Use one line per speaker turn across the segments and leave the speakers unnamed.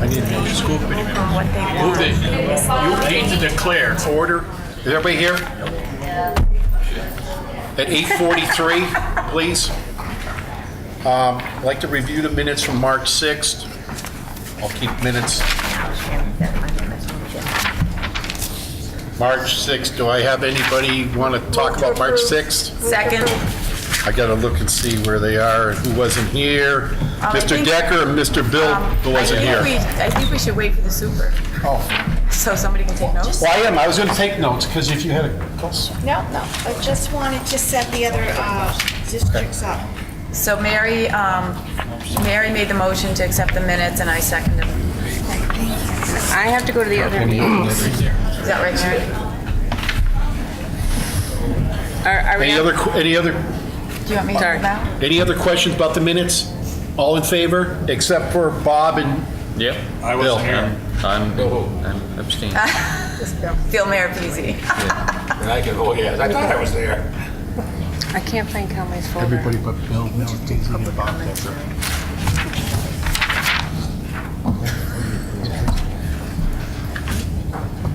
I need a new school committee member.
what they
Move
want.
the, you need to declare order. Is everybody here? At 8:43, please. Um, I'd like to review the minutes from March 6th. I'll keep minutes. March 6th, do I have anybody want to talk about March 6th?
Second.
I gotta look and see where they are and who wasn't here.
Uh, I
Mr.
think- Um,
Decker and Mr. Bill wasn't
I think
here.
we, I think we should wait for the super,
Oh.
so somebody can take notes.
Well, I am. I was going to take notes because if you had a
No, no, I just wanted to set the other uh, districts up.
So Mary, um, Mary made the motion to accept the minutes, and I seconded them.
I have to go to the other meetings.
Is that right, Mary?
Are, are we
any
on-
other any other
Do you want me to
Sorry.
hold out?
any other questions about the minutes? All in favor, except for Bob and
Yep.
I wasn't
Bill.
here.
I'm, I'm abstaining.
Feel Mayor Peasy.
And I can, oh, yes, I thought I was there.
I can't find Conway's folder.
but Bill.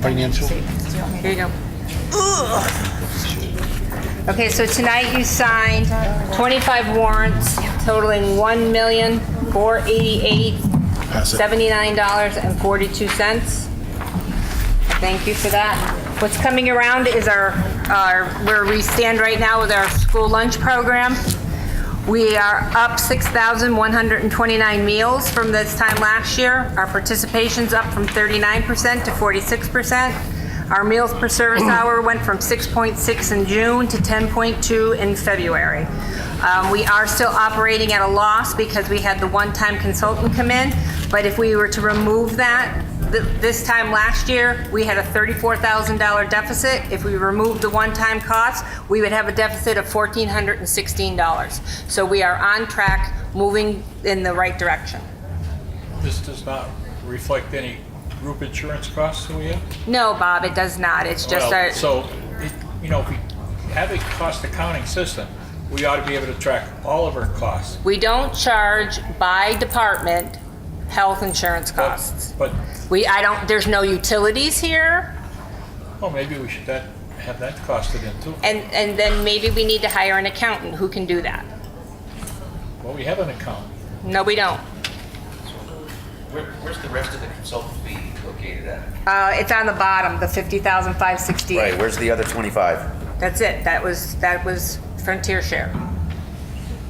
Financial.
Here you go. Okay, so tonight you signed 25 warrants totaling $1,488,79.42. Thank you for that. What's coming around is our, our, where we stand right now with our school lunch program. We are up 6,129 meals from this time last year. Our participation's up from 39% to 46%. Our meals per service hour went from 6.6 in June to 10.2 in February. Um, We are still operating at a loss because we had the one-time consultant come in, but if we were to remove that, th- this time last year, we had a $34,000 deficit. If we removed the one-time costs, we would have a deficit of $1,416. So we are on track, moving in the right direction.
This does not reflect any group insurance costs that we have?
No, Bob, it does not. It's just
Well,
our,
So, it- you know, if we have a cost accounting system, we ought to be able to track all of our costs.
we don't charge by department health insurance
But-
costs.
But,
We, I don't, there's no utilities here.
well, oh, maybe we should that, have that costed in too.
And, and then maybe we need to hire an accountant who can do that.
Well, we have an account.
No, we don't.
Where, where's the rest of the consultant fee located at?
Uh, it's on the bottom, the 50,568.
Right, where's the other 25?
That's it. That was, that was Frontier Share.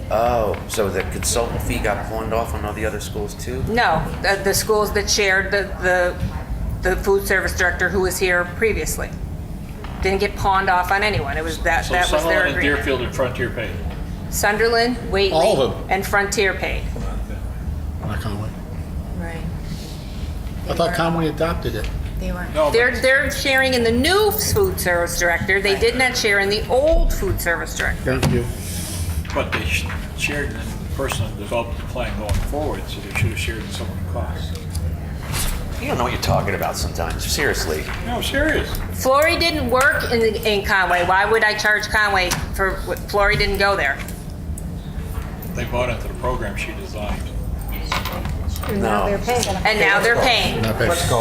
Oh, so the consultant fee got pawned off on all the other schools too?
No, the, the schools that shared the, the, the food service director who was here previously. Didn't get pawned off on anyone. It was that,
So
that was their
Sutherland and
agreement.
Deerfield and Frontier paid.
Sunderland,
All of them.
Waitley, and Frontier paid.
Not Conway.
Right.
I thought Conway adopted it.
They weren't.
No, but
They're, they're sharing in the new food service director. They did not share in the old food service director.
Thank you.
but they sh- shared in the person that developed the plan going forward, so they should have shared in some of the costs.
You don't know what you're talking about sometimes, seriously.
No, serious.
Flory didn't work in, in Conway. Why would I charge Conway for, Flory didn't go there?
They bought into the program she designed.
No.
And now they're paying.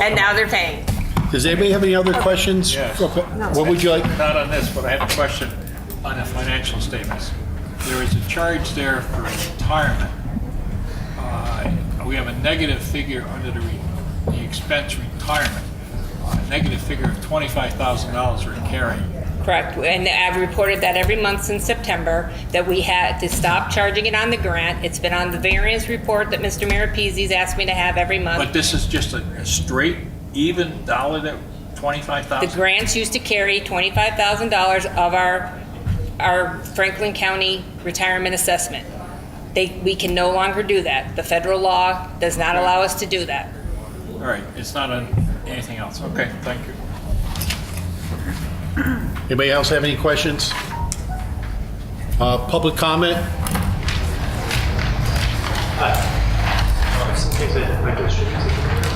And now they're paying.
Does anybody have any other questions?
Yes.
What would you like?
Not on this, but I have a question on the financial statements. There is a charge there for retirement. Uh, We have a negative figure under the re- the expense retirement, a negative figure of $25,000 we're carrying.
Correct. And I've reported that every month since September, that we had to stop charging it on the grant. It's been on the variance report that Mr. Maripeszi's asked me to have every
But
month.
this is just a a straight, even dollar that,
The
25,000?
grants used to carry $25,000 of our, our Franklin County retirement assessment. They, we can no longer do that. The federal law does not allow us to do that.
All right, it's not on anything else. Okay, thank you.
Anybody else have any questions? Uh, Public comment?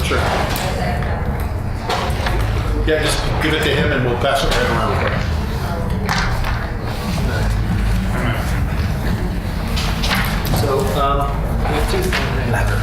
Sure. Yeah, just give it to him and we'll pass it right around.
So, um, we have two